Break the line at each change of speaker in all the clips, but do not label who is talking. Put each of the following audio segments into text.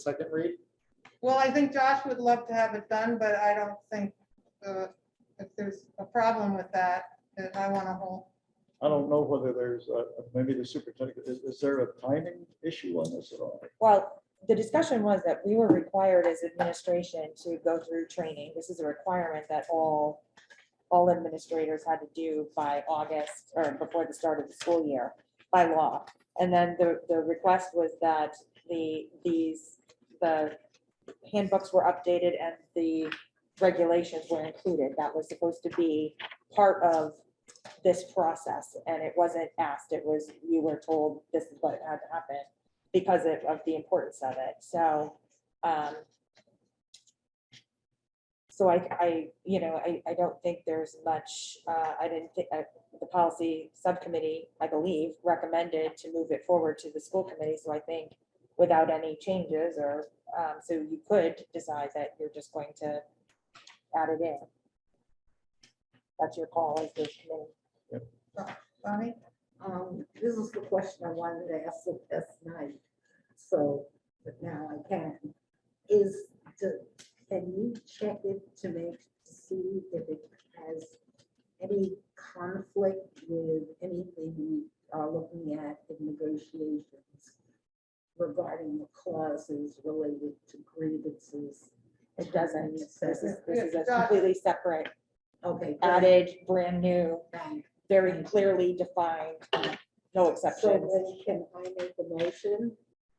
second read?
Well, I think Josh would love to have it done, but I don't think, uh, if there's a problem with that, that I want to hold.
I don't know whether there's, a- maybe the superintendent, is, is there a timing issue on this at all?
Well, the discussion was that we were required as administration to go through training. This is a requirement that all, all administrators had to do by August or before the start of the school year by law. And then the, the request was that the, these, the handbooks were updated and the regulations were included. That was supposed to be part of this process. And it wasn't asked. It was, you were told this is what had to happen because of, of the importance of it, so, um. So I, I, you know, I, I don't think there's much, uh, I didn't think, uh, the policy subcommittee, I believe, recommended to move it forward to the school committee, so I think without any changes or, um, so you could decide that you're just going to add it in. That's your call as the committee.
Bonnie?
Um, this is the question I wanted to ask the last night, so, but now I can. Is the, can you check it to make, to see if it has any conflict with anything we are looking at in negotiations regarding the clauses related to grievances?
It doesn't, this is, this is a
Yeah.
completely separate,
Okay. good.
added, brand new.
Thank
very clearly defined, no exceptions.
So then can I make a motion?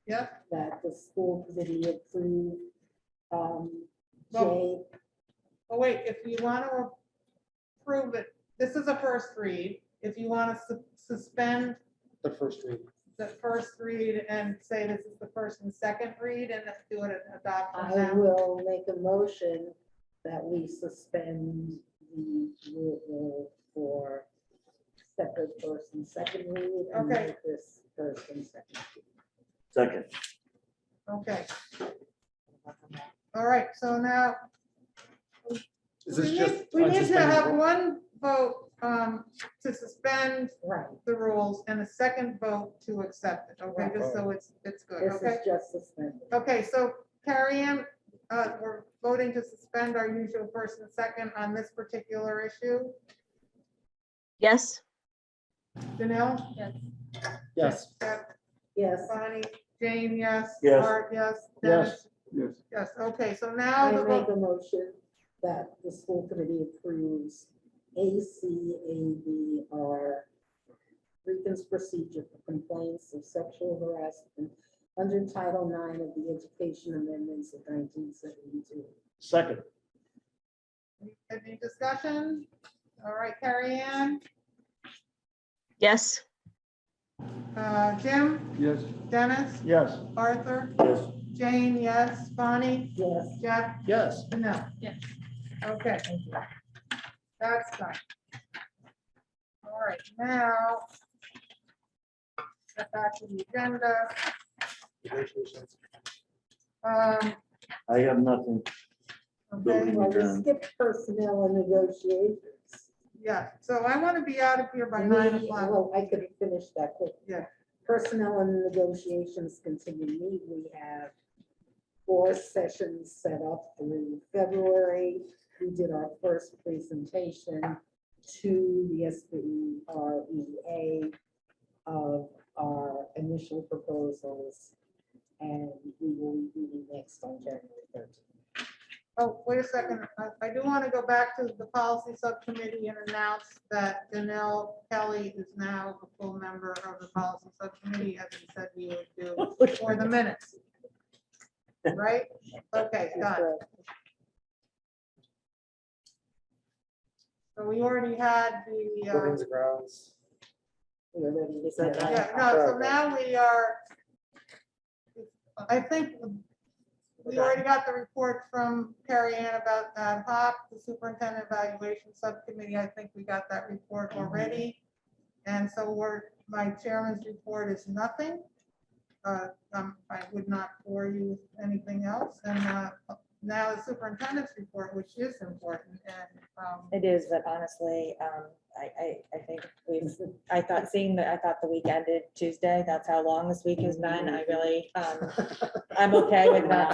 Yep.
That the school committee approve, um, J,
Well- Oh, wait, if you want to approve it, this is a first read. If you want to suspend
The first read.
the first read and say this is the first and second read and then do it and adopt on
I
that.
will make a motion that we suspend the rule for separate first and second read. and
Okay.
make This first and second.
Second,
Okay. All right, so now
Is
we
this just?
need, we
on
need to
suspended
have
rule?
one vote, um, to suspend
Right,
the rules and a second vote to accept it, okay, just so it's, it's good,
this
okay?
is just suspended.
Okay, so Carrie Ann, uh, we're voting to suspend our usual first and second on this particular issue.
Yes.
Janelle? Yes.
Yes.
Yes,
Bonnie, Jane, yes.
Yes.
Art, yes.
Yes.
Dennis?
Yes.
Yes, okay, so now
I
the
make
vote,
a motion that the school committee approves A C A B R grievance procedure for complaints of sexual harassment under Title IX of the Education Amendments of nineteen seventy-two.
Second,
any discussion? All right, Carrie Ann,
Yes.
uh, Jim,
yes.
Dennis,
Yes.
Arthur,
yes.
Jane, yes, Bonnie,
Yes.
Jeff,
Yes.
No. Yes. Okay. That's fine. All right, now. Get back to the agenda.
Negotiations.
Um,
I have nothing.
okay,
Well,
Adjourn.
we skipped personnel and negotiations.
yeah, so I want to be out of here by
We-
nine o'clock.
Well, I could finish that quick.
Yeah.
Personnel and negotiations continue. We have four sessions set up through February. We did our first presentation to the SBREA E of our initial proposals. And we will be meeting next on January thirteenth.
Oh, wait a second. I, I do want to go back to the policy subcommittee and announce that Danelle Kelly is now a full member of the policy subcommittee, as we said we would do for the minutes. Right? Okay, done. So we already had the, uh,
Buildings and grounds.
We are ready to.
Is that-
set
yeah,
up.
no, so now we are, I think we already got the report from Carrie Ann about uh, HOP, the Superintendent Evaluation Subcommittee. I think we got that report already. And so we're, my chairman's report is nothing. Uh, um, I would not bore you with anything else. And uh, now the superintendent's report, which is important, and, um,
It is, but honestly, um, I, I, I think we've, I thought seeing that, I thought the week ended Tuesday, that's how long this week has been, I really, um, I'm okay with not